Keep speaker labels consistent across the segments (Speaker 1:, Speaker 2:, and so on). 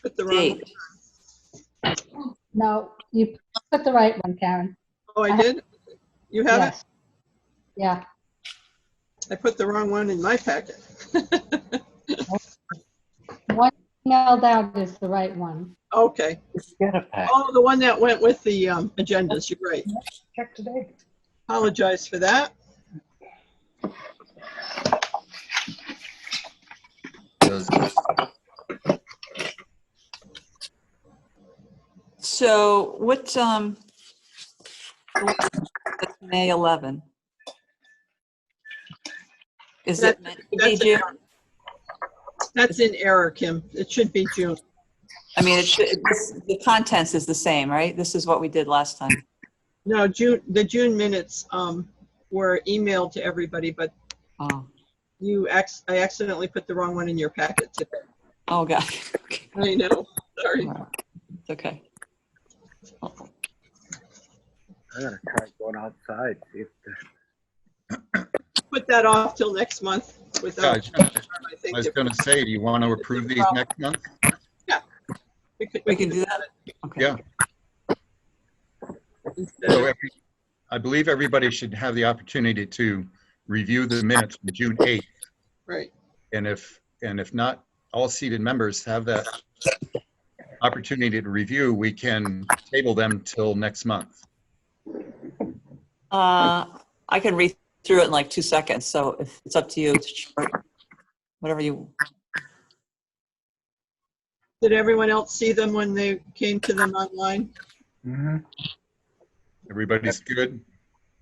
Speaker 1: Put the wrong,
Speaker 2: date.
Speaker 3: No, you put the right one, Karen.
Speaker 1: oh, I did? You have it?
Speaker 3: Yes. Yeah,
Speaker 1: I put the wrong one in my packet.
Speaker 3: one emailed out is the right one.
Speaker 1: Okay.
Speaker 4: Just Get a pack.
Speaker 1: Oh, the one that went with the um, agendas, you're right.
Speaker 4: Check today.
Speaker 1: Apologize for that.
Speaker 5: Those-
Speaker 2: So what's, um, May 11? Is it, meant to be
Speaker 1: That's
Speaker 2: June?
Speaker 1: That's in error, Kim. It should be June.
Speaker 2: I mean, it should, it's- the contents is the same, right? This is what we did last time.
Speaker 1: No, June, the June minutes um, were emailed to everybody, but
Speaker 2: Oh,
Speaker 1: you, ac- I accidentally put the wrong one in your packet today.
Speaker 2: oh, God. Okay.
Speaker 1: I know, sorry.
Speaker 2: It's okay.
Speaker 4: I'm gonna try going outside, see if
Speaker 1: Put that off till next month
Speaker 5: Yeah,
Speaker 1: without,
Speaker 5: I
Speaker 1: I think.
Speaker 5: was going to say, do you want to approve these next month?
Speaker 1: we could-
Speaker 2: We can do that? Okay.
Speaker 5: Yeah. So every- I believe everybody should have the opportunity to review the minutes from June 8th.
Speaker 1: Right,
Speaker 5: And if, and if not, all seated members have that opportunity to review, we can table them till next month.
Speaker 2: Uh, I can read through it in like two seconds, so if it's up to you, it's short, whatever you,
Speaker 1: did everyone else see them when they came to them online? Mm-hmm.
Speaker 4: Mhm.
Speaker 5: Everybody's good?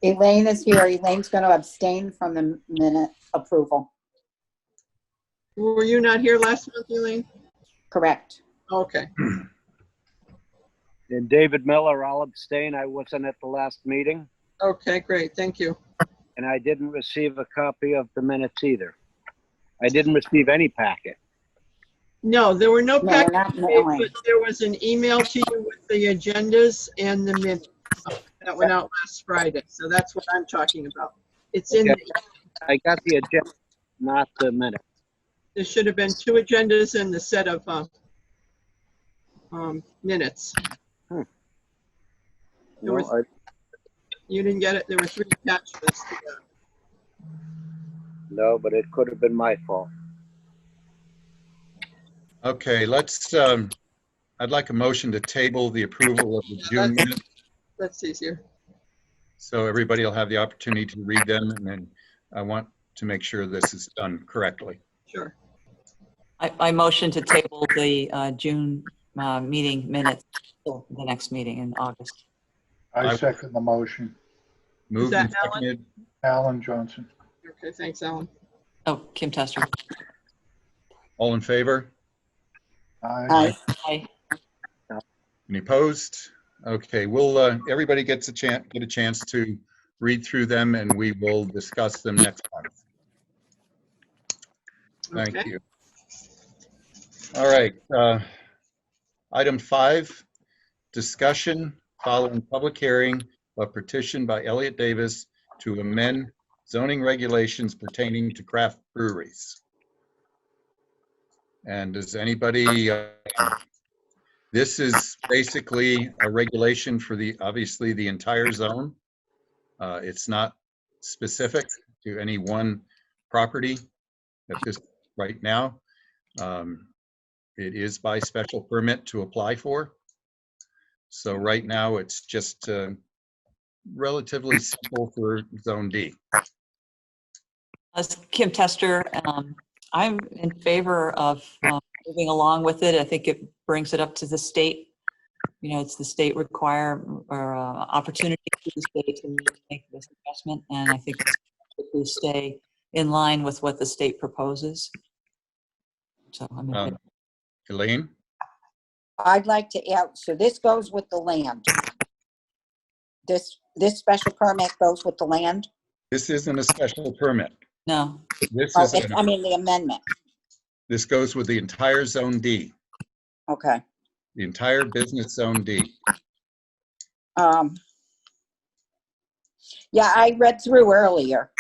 Speaker 6: Elaine is here. Elaine's going to abstain from the minute approval.
Speaker 1: Were you not here last month, Elaine?
Speaker 6: Correct.
Speaker 1: Okay,
Speaker 7: And David Miller, I'll abstain. I wasn't at the last meeting,
Speaker 1: okay, great, thank you.
Speaker 7: and I didn't receive a copy of the minutes either. I didn't receive any packet.
Speaker 1: No, there were no
Speaker 6: No, we're
Speaker 1: packets,
Speaker 6: not
Speaker 1: made,
Speaker 6: mailing.
Speaker 1: but there was an email to you with the agendas and the minutes that went out last Friday, so that's what I'm talking about. It's in, the-
Speaker 7: I got the agenda, not the minutes.
Speaker 1: there should have been two agendas and the set of, uh, um, minutes.
Speaker 6: Hmm.
Speaker 1: There
Speaker 7: No,
Speaker 1: was-
Speaker 7: I-
Speaker 1: You didn't get it, there were three attachments to that.
Speaker 7: No, but it could have been my fault.
Speaker 5: Okay, let's, um, I'd like a motion to table the approval of the June minutes
Speaker 1: That's easier.
Speaker 5: So everybody will have the opportunity to read them, and then I want to make sure this is done correctly.
Speaker 1: Sure.
Speaker 2: I, I motion to table the, uh, June, uh, meeting minutes, till the next meeting in August.
Speaker 5: I-
Speaker 8: I second the motion.
Speaker 5: Moved
Speaker 1: that
Speaker 5: and seconded,
Speaker 8: Alan Johnson.
Speaker 1: Okay, thanks, Alan.
Speaker 2: Oh, Kim Tester.
Speaker 5: all in favor?
Speaker 8: Aye.
Speaker 6: Aye.
Speaker 2: Aye.
Speaker 5: Any opposed? Okay, we'll, uh, everybody gets a chance, get a chance to read through them, and we will discuss them next month. Thank
Speaker 1: Okay.
Speaker 5: you. All right, uh, item five, discussion following public hearing of petition by Elliot Davis to amend zoning regulations pertaining to craft breweries. And does anybody, uh, this is basically a regulation for the, obviously, the entire zone. Uh, It's not specific to any one property at this, right now. Um, It is by special permit to apply for. So right now, it's just uh, relatively simple for Zone D.
Speaker 2: As Kim Tester, um, I'm in favor of um, moving along with it. I think it brings it up to the state. You know, it's the state require or uh, opportunity to the state to make this investment, and I think it's if we stay in line with what the state proposes. So I'm in
Speaker 5: Um,
Speaker 2: favor.
Speaker 5: Elaine?
Speaker 6: I'd like to add, so this goes with the land. This, this special permit goes with the land.
Speaker 5: This isn't a special permit.
Speaker 2: no,
Speaker 5: This
Speaker 6: Oh,
Speaker 5: is,
Speaker 6: it- I mean, the amendment.
Speaker 5: this goes with the entire Zone D,
Speaker 6: Okay.
Speaker 5: the entire business Zone D.
Speaker 6: Um, yeah, I read through earlier